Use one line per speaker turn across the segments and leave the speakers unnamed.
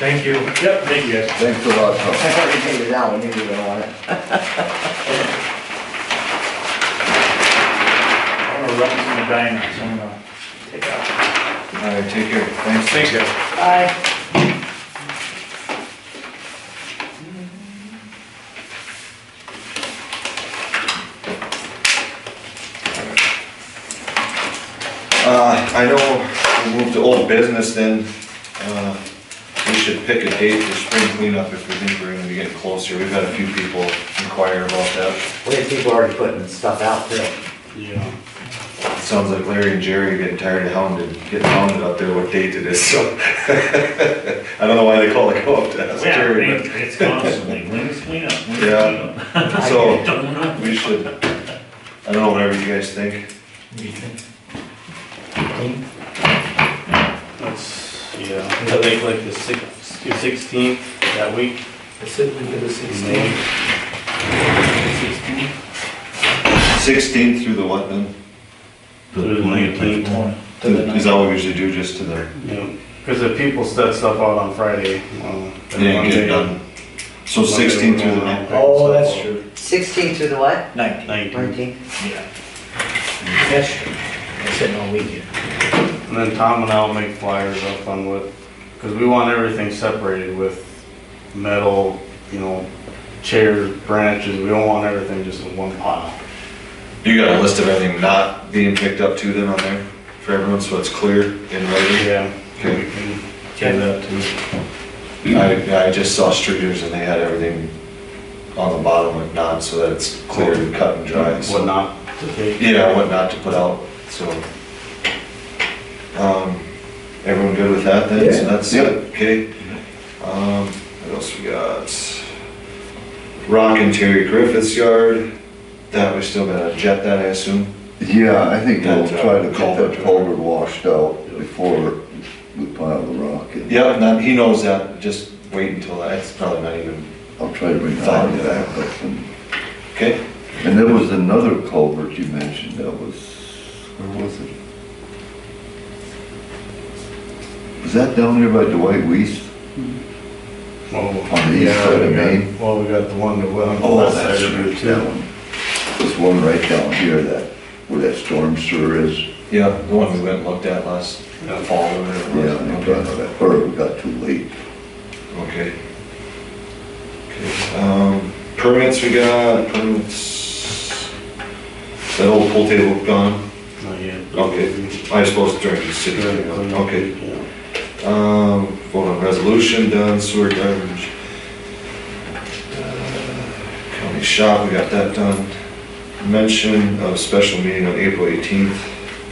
Thank you. Yep, thank you guys.
Thanks a lot, Tom.
I already figured it out, I knew you were gonna want it.
I'm gonna run some diamonds, I'm gonna take out.
All right, take care, thanks.
Thanks, guys.
Aye.
Uh, I know we moved to old business then, uh, we should pick a date for spring cleanup if we think we're gonna be getting closer. We've had a few people inquire about that.
We had people already putting stuff out too.
Yeah.
It sounds like Larry and Jerry are getting tired of hounded, getting hounded out there what date it is, so. I don't know why they call it co-op to ask
Yeah,
Jerry, but.
it- it's constantly, when's cleanup? When's
Yeah.
cleanup?
So,
Don't know.
we should, I don't know, whatever you guys think.
That's, yeah, I think like the sixth, the sixteenth, that week.
I said we did a sixteen.
maybe. Sixteenth?
Sixteenth through the what then?
Through the nineteenth.
To- Is that what we usually do, just to the,
Yeah, because if people set stuff out on Friday, well.
and then get it done? So sixteen through the nineteenth.
Oh, that's true.
Sixteen through the what?
Nineteen.
Nineteen.
Yeah. That's true. I said no weekend.
And then Tom and I'll make flyers up on what, because we want everything separated with metal, you know, chairs, branches, we don't want everything just in one pile.
You got a list of everything not being picked up to then on there for everyone, so it's clear in writing?
Yeah, we
Okay.
can do that too.
I, I just saw streeters and they had everything on the bottom like not, so that it's clear and cut and dry,
What
so.
not to take.
Yeah, what not to put out, so. Um, everyone good with that then? So
Yeah.
that's it, okay? Um, what else we got? Rock and Terry Griffith's yard, that we still gotta jet that, I assume?
Yeah, I think we'll
That's
try to
right.
get that culvert washed out before we pile the rock in.
Yep, not, he knows that, just wait until, that- it's probably not even,
I'll try to bring
Fine.
that back up. And-
okay?
And there was another culvert you mentioned that was, where was it? Was that down there by Dwight Weiss
Oh,
on the east
yeah,
side
we
of
got-
Maine?
Well, we got the one that went.
Oh,
west
that's
side of it,
That
too.
one. There's one right down here that, where that storm sewer is.
Yeah, the one we went and looked at last uh,
Yeah.
fall or whatever.
Yeah,
it
in
was.
front of that, or it got too late.
Okay. Okay. Um, permits we got, permits. That old pool table gone,
Not yet.
Okay. I suppose during the city,
Good, clean up,
okay.
yeah.
Um, vote on resolution done, sewer garbage. Uh, County shop, we got that done. Mention of special meeting on April eighteenth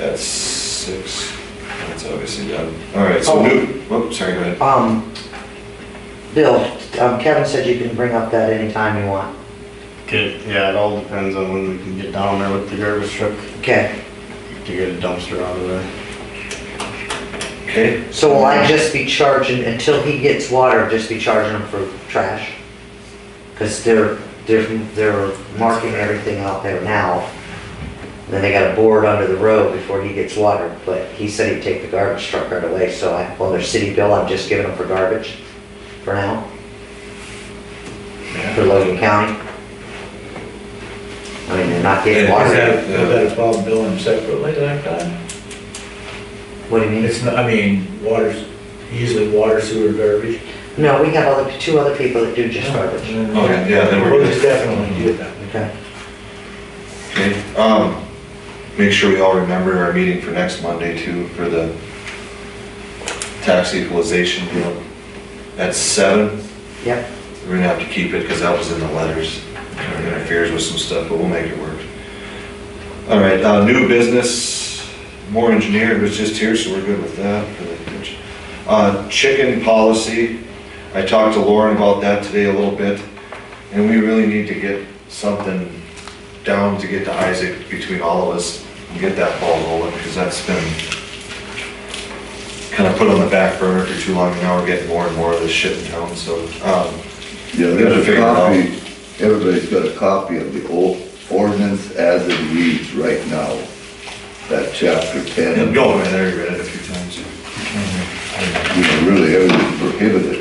at six. That's obviously done. All right, so
Oh.
new, whoop, sorry, go ahead.
Um, Bill, um, Kevin said you can bring up that anytime you want.
Good. Yeah, it all depends on when we can get down there with the garbage truck
Okay,
to get a dumpster out of there.
Okay.
so will I just be charging, until he gets water, just be charging him for trash? Cause they're, they're, they're marking everything out there now. Then they got a board under the road before he gets water, but he said he'd take the garbage truck right away, so I, on their city bill, I'm just giving them for garbage for now, for Logan County. I mean, they're not getting
Is
Yeah,
water.
that,
Yeah.
is that about billing separately that time?
What do you mean?
It's not, I mean, water's, usually water, sewer, garbage.
No, we have other, two other people that do just garbage.
Okay, yeah, then we're
We'll
good.
just definitely do that.
Okay.
Okay, um, make sure we all remember our meeting for next Monday too, for the tax equalization deal. At seven,
Yep,
we're gonna have to keep it, cause that was in the letters. It interferes with some stuff, but we'll make it work. All right, uh, new business, more engineer was just here, so we're good with that. Uh, chicken policy, I talked to Lauren about that today a little bit, and we really need to get something down to get to Isaac between all of us and get that ball rolling, because that's been kind of put on the back burner for too long, and now we're getting more and more of this shit in town, so, um,
Yeah,
Gotta
there's a
figure it out.
copy, everybody's got a copy of the old ordinance as it reads right now. That chapter ten,
and
you
go, man, I already read it a few times.
know, really, every-